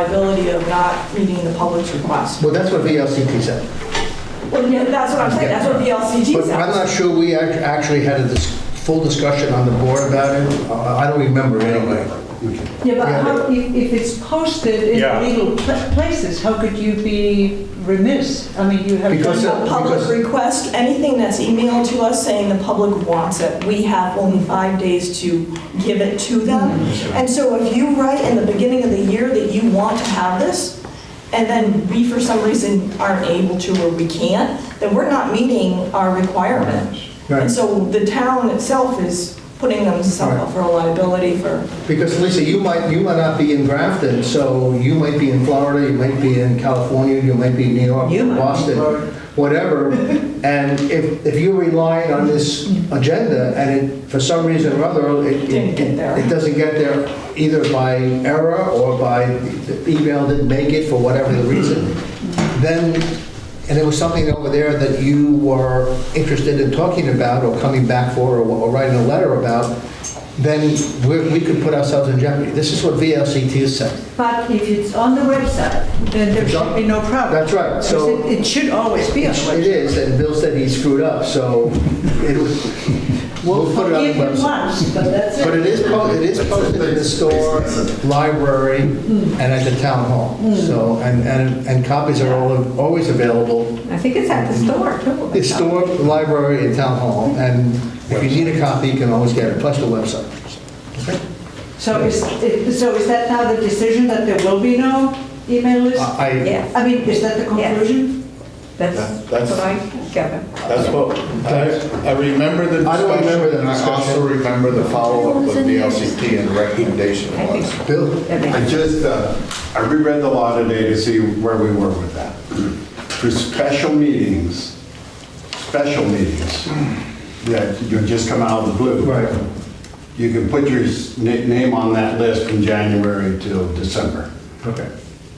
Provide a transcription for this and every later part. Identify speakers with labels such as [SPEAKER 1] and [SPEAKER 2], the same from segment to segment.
[SPEAKER 1] liability of not reading the public's request.
[SPEAKER 2] Well, that's what VLCT said.
[SPEAKER 1] Well, yeah, that's what I'm saying, that's what VLCT
[SPEAKER 2] But I'm
[SPEAKER 1] says.
[SPEAKER 2] not sure we act- actually had a dis- full discussion on the board about it. Uh, I don't remember anyway.
[SPEAKER 3] Yeah, but
[SPEAKER 2] Yeah.
[SPEAKER 3] how, if, if it's posted
[SPEAKER 4] Yeah.
[SPEAKER 3] in legal pla- places, how could you be remiss? I mean, you have.
[SPEAKER 2] Because
[SPEAKER 1] A public
[SPEAKER 2] Because-
[SPEAKER 1] request, anything that's emailed to us saying the public wants it, we have only five days to give it to them.
[SPEAKER 2] Mm-hmm.
[SPEAKER 1] And so if you write in the beginning of the year that you want to have this, and then we for some reason aren't able to or we can't, then we're not meeting our requirement. And
[SPEAKER 2] Right.
[SPEAKER 1] so the town itself is putting themselves up for a liability for,
[SPEAKER 2] Because Lisa, you might, you might not be in Grafton, so you might be in Florida, you might be in California, you might be in New York,
[SPEAKER 3] You might be
[SPEAKER 2] Boston,
[SPEAKER 3] Florida.
[SPEAKER 2] whatever. And if, if you're relying on this agenda and it, for some reason or other, it,
[SPEAKER 1] Didn't
[SPEAKER 2] it
[SPEAKER 1] get there.
[SPEAKER 2] it doesn't get there either by error or by the email didn't make it for whatever the reason, then, and there was something over there that you were interested in talking about or coming back for or- or writing a letter about, then we're- we could put ourselves in jeopardy. This is what VLCT is saying.
[SPEAKER 3] But if it's on the website, then there
[SPEAKER 2] It's on-
[SPEAKER 3] should be no problem.
[SPEAKER 2] That's right, so-
[SPEAKER 3] Because It it should always be on the
[SPEAKER 2] It
[SPEAKER 3] website.
[SPEAKER 2] is, and Bill said he screwed up, so it was- we'll put it on the
[SPEAKER 3] Forgive him
[SPEAKER 2] website.
[SPEAKER 3] once, but that's it.
[SPEAKER 2] But it is, po- it is posted in the store, library, and at the town hall. So, and, and, and copies are all, always available,
[SPEAKER 5] I think it's at the store too.
[SPEAKER 2] the store, library, and town hall. And if you need a copy, you can always get it, plus the website.
[SPEAKER 3] So is, it- so is that now the decision that there will be no email list?
[SPEAKER 2] I,
[SPEAKER 5] Yes,
[SPEAKER 3] I mean, is that the conclusion?
[SPEAKER 5] that's
[SPEAKER 4] That's-
[SPEAKER 5] that's what I gather.
[SPEAKER 4] That's what, I, I remember the
[SPEAKER 2] I don't remember the
[SPEAKER 4] discussion, and I
[SPEAKER 2] discussion.
[SPEAKER 4] also remember the follow-up of the LCT and recommendation
[SPEAKER 5] I think-
[SPEAKER 4] was.
[SPEAKER 2] Bill?
[SPEAKER 5] That makes-
[SPEAKER 6] I just, uh, I reread the law today to see where we were with that. For special meetings, special meetings, that you just come out of the blue.
[SPEAKER 2] Right.
[SPEAKER 6] You can put your s- na- name on that list from January till December.
[SPEAKER 2] Okay.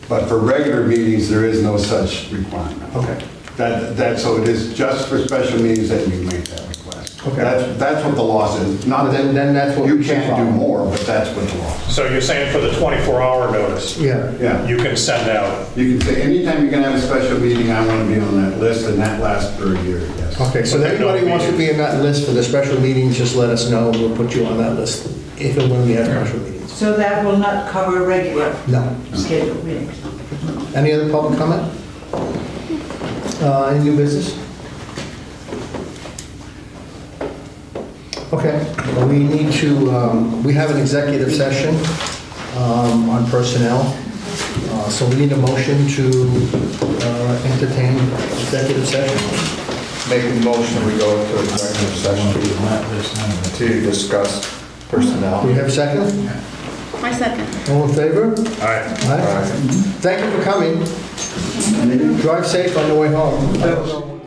[SPEAKER 6] But for regular meetings, there is no such requirement.
[SPEAKER 2] Okay.
[SPEAKER 6] That, that, so it is just for special meetings that you make that request.
[SPEAKER 2] Okay.
[SPEAKER 6] That's, that's what the law says, not
[SPEAKER 2] Then- then that's
[SPEAKER 6] that
[SPEAKER 2] what we
[SPEAKER 6] you
[SPEAKER 2] should
[SPEAKER 6] can't
[SPEAKER 2] follow.
[SPEAKER 6] do more, but that's what the law says.
[SPEAKER 7] So you're saying for the 24-hour notice?
[SPEAKER 2] Yeah.
[SPEAKER 6] Yeah.
[SPEAKER 7] You can send out,
[SPEAKER 6] You can say, anytime you're gonna have a special meeting, I wanna be on that list, and that lasts for a year, yes.
[SPEAKER 2] Okay, so if anybody wants to be in that list for the special meetings, just let us know, and we'll put you on that list, if and when we have special meetings.
[SPEAKER 3] So that will not cover regular
[SPEAKER 2] No.
[SPEAKER 3] scheduled meetings?
[SPEAKER 2] Any other public comment? Uh, Any new business? Okay, well, we need to, um, we have an executive session um, on personnel, Uh, so we need a motion to uh, entertain executive session.
[SPEAKER 4] make a motion, we go to executive session to discuss personnel.
[SPEAKER 2] Do we have a second?
[SPEAKER 8] My second.
[SPEAKER 2] All in favor?
[SPEAKER 7] all right.
[SPEAKER 2] All right. Thank you for coming. Drive safe on the way home.